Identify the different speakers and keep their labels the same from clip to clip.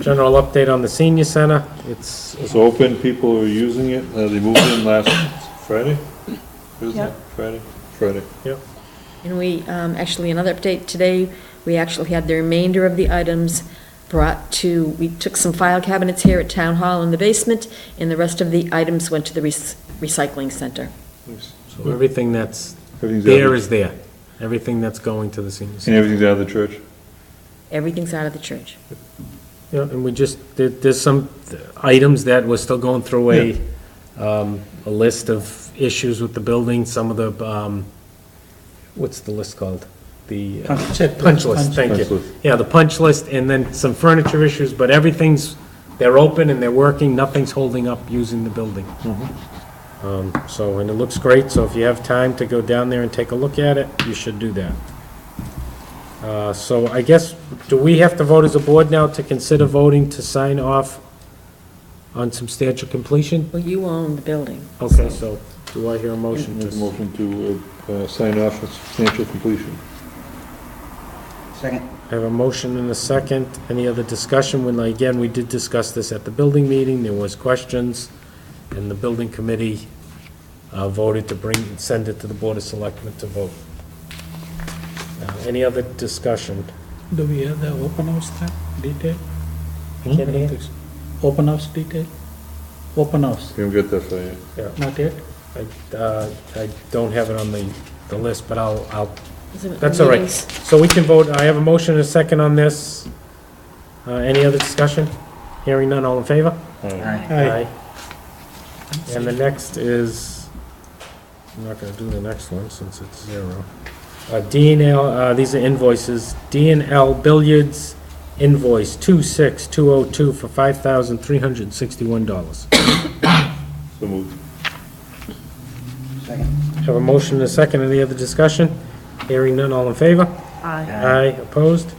Speaker 1: General update on the senior center, it's,
Speaker 2: It's open, people are using it, Uh, they moved in last Friday? Thursday,
Speaker 3: Yep.
Speaker 2: Friday? Friday.
Speaker 3: And we, um, actually, another update today, we actually had the remainder of the items brought to, we took some file cabinets here at Town Hall in the basement, and the rest of the items went to the rec- recycling center.
Speaker 2: Nice.
Speaker 1: so everything that's
Speaker 2: Everything's out
Speaker 1: there
Speaker 2: of-
Speaker 1: is there. Everything that's going to the senior
Speaker 2: And
Speaker 1: center.
Speaker 2: everything's out of the church?
Speaker 3: Everything's out of the church.
Speaker 1: Yeah, and we just, there, there's some items that we're still going through a, um, a list of issues with the building, some of the, um, what's the list called? The. uh, Punch list, thank
Speaker 2: Punch
Speaker 1: you.
Speaker 2: list.
Speaker 1: Yeah, the punch list, and then some furniture issues, but everything's, they're open and they're working, nothing's holding up using the building. Um, so, and it looks great, so if you have time to go down there and take a look at it, you should do that. Uh, so I guess, do we have to vote as a board now to consider voting to sign off on substantial completion?
Speaker 3: Well, you own the building.
Speaker 1: Okay, so do I hear a motion?
Speaker 2: Make a
Speaker 1: to-
Speaker 2: motion to uh, uh, sign off on substantial completion.
Speaker 4: Second.
Speaker 1: I have a motion and a second. Any other discussion? When, again, we did discuss this at the building meeting, there was questions, and the building committee uh, voted to bring, send it to the Board of Selectmen to vote. Uh, Any other discussion?
Speaker 5: Do we have the open house time, detail? Hmm?
Speaker 1: Can you-
Speaker 5: Open house detail? Open house,
Speaker 2: We don't get that far yet.
Speaker 5: not yet?
Speaker 1: I uh, I don't have it on the, the list, but I'll, I'll,
Speaker 3: Isn't it
Speaker 1: that's all right.
Speaker 3: meetings?
Speaker 1: So we can vote, I have a motion and a second on this. Uh, Any other discussion? Hearing none, all in favor? Aye. And the next is, I'm not gonna do the next one since it's zero. Uh, D and L, uh, these are invoices, D and L Billiards invoice two six two oh two for five thousand three hundred and sixty-one dollars.
Speaker 2: So moved.
Speaker 4: Second.
Speaker 1: Have a motion and a second, any other discussion? Hearing none, all in favor?
Speaker 3: Aye.
Speaker 1: Aye, opposed?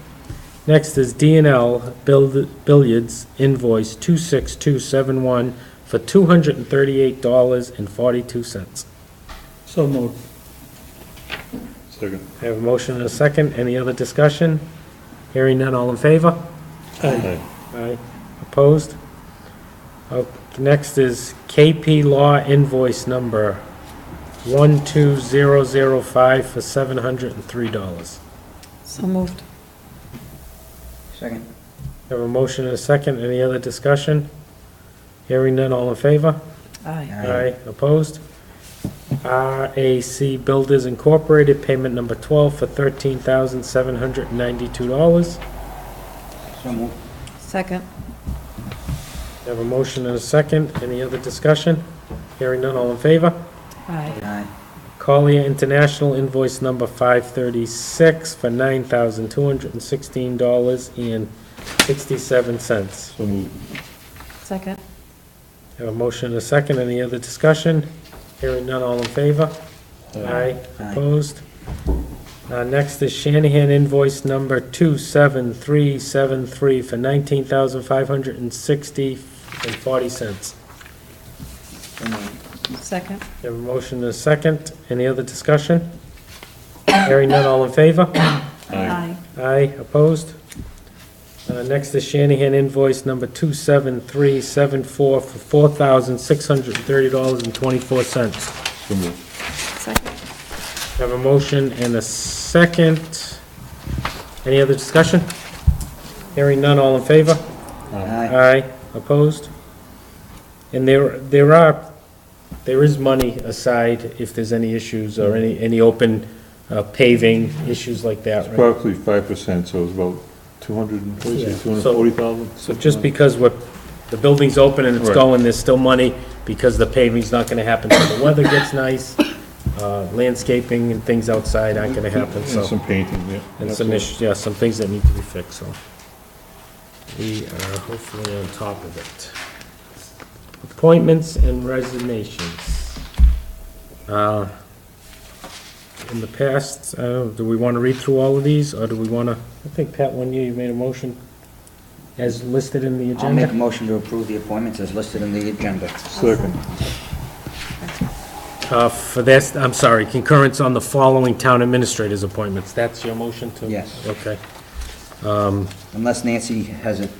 Speaker 1: Next is D and L Billiards invoice two six two seven one for two hundred and thirty-eight dollars and forty-two cents.
Speaker 5: So moved.
Speaker 2: Second.
Speaker 1: I have a motion and a second. Any other discussion? Hearing none, all in favor?
Speaker 2: Aye.
Speaker 1: Aye. Opposed? Uh, Next is KP Law invoice number 12005 for $703.
Speaker 3: So moved.
Speaker 4: Second.
Speaker 1: I Have a motion and a second. Any other discussion? Hearing none, all in favor?
Speaker 3: Aye.
Speaker 1: Opposed? RAC Builders Incorporated, payment number 12 for $13,792.
Speaker 4: So moved.
Speaker 3: Second.
Speaker 1: I Have a motion and a second. Any other discussion? Hearing none, all in favor?
Speaker 3: Aye.
Speaker 4: Aye.
Speaker 1: Collier International invoice number 536 for $9,216.67.
Speaker 2: So moved.
Speaker 3: Second.
Speaker 1: I Have a motion and a second. Any other discussion? Hearing none, all in favor? Aye.
Speaker 4: Aye.
Speaker 1: Opposed? Uh, Next is Shanahan invoice number 27373 for $19,560.40.
Speaker 4: So moved.
Speaker 3: Second.
Speaker 1: We have a motion and a second. Any other discussion? Hearing none, all in favor? Aye, opposed? Uh, Next is Shanahan invoice number 27374 for $4,630.24.
Speaker 2: So moved.
Speaker 3: Second.
Speaker 1: We Have a motion and a second. Any other discussion? Hearing none, all in favor?
Speaker 4: Aye.
Speaker 1: Aye, opposed? And there, there are, there is money aside if there's any issues or any, any open uh, paving, issues like that, right?
Speaker 2: Approximately five percent, so it's about two hundred and forty,
Speaker 1: Yeah.
Speaker 2: two hundred and forty thousand?
Speaker 1: So just because we're, the building's open and it's
Speaker 2: Right.
Speaker 1: going, there's still money because the paving's not gonna happen till the weather gets nice, uh, landscaping and things outside aren't gonna happen, so.
Speaker 2: And some painting, yeah.
Speaker 1: And some
Speaker 2: Absolutely.
Speaker 1: issues, yeah, some things that need to be fixed, so. We are hopefully on top of it. Appointments and resignations. Uh, In the past, I don't know, do we want to read through all of these, or do we want to, I think, Pat, one year you made a motion as listed in the
Speaker 4: I'll make a
Speaker 1: agenda?
Speaker 4: motion to approve the appointments as listed in the agenda.
Speaker 2: Second.
Speaker 1: Uh, For this, I'm sorry, concurrence on the following town administrators' appointments. That's your motion to?
Speaker 4: Yes.
Speaker 1: Okay.
Speaker 4: Unless Nancy has a